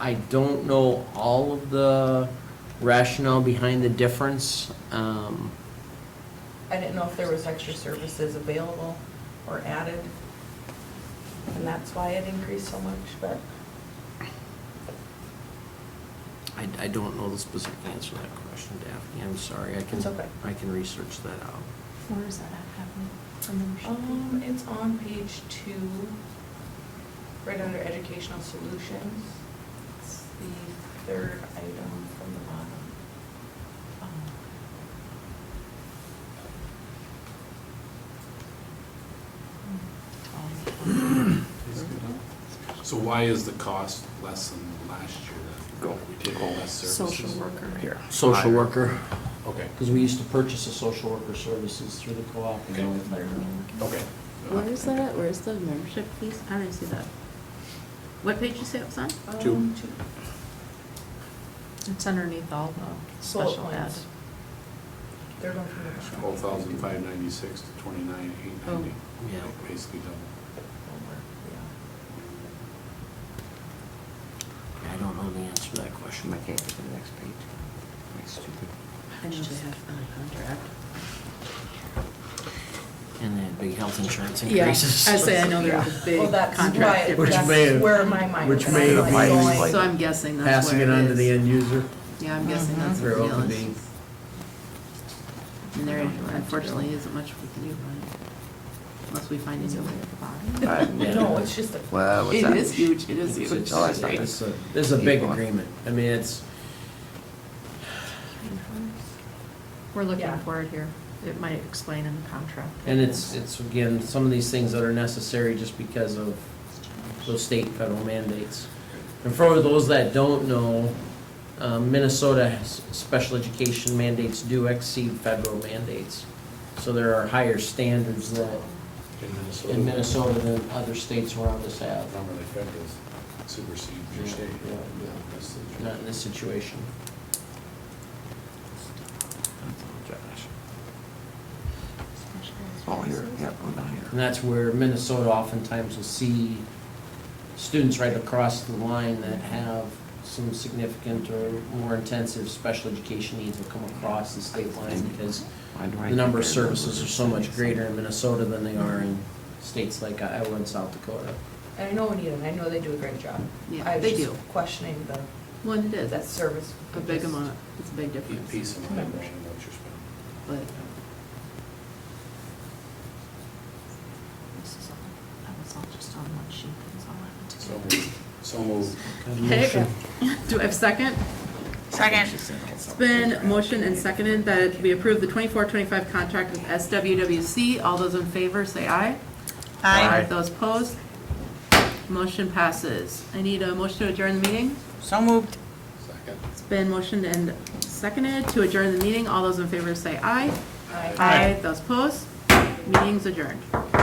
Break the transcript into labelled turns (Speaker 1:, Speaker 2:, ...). Speaker 1: I don't know all of the rationale behind the difference. Um,
Speaker 2: I didn't know if there was extra services available or added. And that's why it increased so much, but
Speaker 1: I, I don't know the specific answer to that question, Daphne. I'm sorry. I can,
Speaker 2: It's okay.
Speaker 1: I can research that out.
Speaker 3: Where is that at, happening? From the membership?
Speaker 2: um, it's on page two, right under educational solutions. It's the third item from the bottom. Um,
Speaker 4: So why is the cost less than last year then?
Speaker 1: Go.
Speaker 4: We did less services?
Speaker 3: Social worker.
Speaker 5: Here.
Speaker 1: Social
Speaker 4: Hi.
Speaker 1: worker,
Speaker 4: Okay,
Speaker 1: because we used to purchase the social worker services through the co-op. and go with their-
Speaker 4: okay.
Speaker 6: Where is that, where's the membership piece? I didn't see that. What page you say it was on?
Speaker 4: Two.
Speaker 2: Um, two.
Speaker 3: It's underneath all the
Speaker 2: Bullet
Speaker 3: special ed.
Speaker 2: points. They're going from the. bottom.
Speaker 4: Twelve thousand five ninety-six to twenty-nine eight ninety.
Speaker 1: Oh. Yeah.
Speaker 4: Basically double.
Speaker 2: Over, yeah.
Speaker 1: I don't know the answer to that question.
Speaker 5: I can't get to the next page. My stupid.
Speaker 6: I know they have on a contract.
Speaker 1: And then big health insurance
Speaker 3: Yeah, I
Speaker 1: increases.
Speaker 3: say I know there was a
Speaker 2: Well,
Speaker 3: big
Speaker 2: that's
Speaker 3: contract
Speaker 2: why,
Speaker 7: Which
Speaker 3: difference.
Speaker 7: may
Speaker 2: that's
Speaker 7: have-
Speaker 2: where my mind was
Speaker 7: which
Speaker 2: going.
Speaker 7: may have might-
Speaker 6: So I'm guessing that's
Speaker 7: Passing
Speaker 6: where
Speaker 7: it on
Speaker 6: it
Speaker 7: to the
Speaker 6: is.
Speaker 7: end user,
Speaker 6: Yeah, I'm guessing that's
Speaker 7: Very
Speaker 6: where
Speaker 7: well
Speaker 6: it
Speaker 7: could
Speaker 6: is.
Speaker 7: be.
Speaker 6: And there unfortunately isn't much we can do about it. Unless we find a new way at the bottom.
Speaker 1: Yeah.
Speaker 2: No, it's just a.
Speaker 7: Uh,
Speaker 5: Well, what's
Speaker 6: It
Speaker 5: that?
Speaker 6: is huge, it is
Speaker 5: It's-
Speaker 6: huge.
Speaker 5: it's all that stuff.
Speaker 1: It's a, it's a big
Speaker 5: Keep going.
Speaker 1: agreement. I mean, it's,
Speaker 3: We're looking
Speaker 2: Yeah.
Speaker 3: for it here. It might explain in the contract.
Speaker 1: and it's, it's again, some of these things that are necessary just because of those state and federal mandates. And for those that don't know, um, Minnesota has- special education mandates do exceed federal mandates. So there are higher standards that in Minnesota than other states around us have, Um,
Speaker 4: Remember the federals supersede your
Speaker 1: Yeah,
Speaker 4: state.
Speaker 1: yeah, yeah.
Speaker 4: That's the-
Speaker 1: not in this situation.
Speaker 5: Oh, here, yep, I'm down
Speaker 1: And
Speaker 5: here.
Speaker 1: that's where Minnesota oftentimes will see students right across the line that have some significant or more intensive special education needs will come across the state line because
Speaker 5: Why do I
Speaker 1: the number of
Speaker 5: compare numbers?
Speaker 1: services are so much greater in Minnesota than they are in states like uh, Iowa and South Dakota.
Speaker 2: And I know we need them, I know they do a great job.
Speaker 6: Yeah, they
Speaker 2: I
Speaker 6: do.
Speaker 2: was just questioning the,
Speaker 6: Well, and it is,
Speaker 2: that
Speaker 6: that's
Speaker 2: service.
Speaker 6: a big amount, it's a big
Speaker 4: Each
Speaker 6: difference,
Speaker 4: piece of mind, what you're spending.
Speaker 6: but
Speaker 3: This is all, that was all just on one sheet, that was all I had to do.
Speaker 4: So moved. So moved.
Speaker 6: Okay. Do I have a second?
Speaker 5: Second.
Speaker 6: It's been motioned and seconded that we approve the 24-25 contract with SWWC. All those in favor, say aye.
Speaker 5: Aye.
Speaker 6: Those opposed? Motion passes. I need a motion to adjourn the meeting.
Speaker 4: Second.
Speaker 6: It's been motioned and seconded to adjourn the meeting. All those in favor, say aye.
Speaker 2: Aye.
Speaker 6: Those opposed? Meeting's adjourned.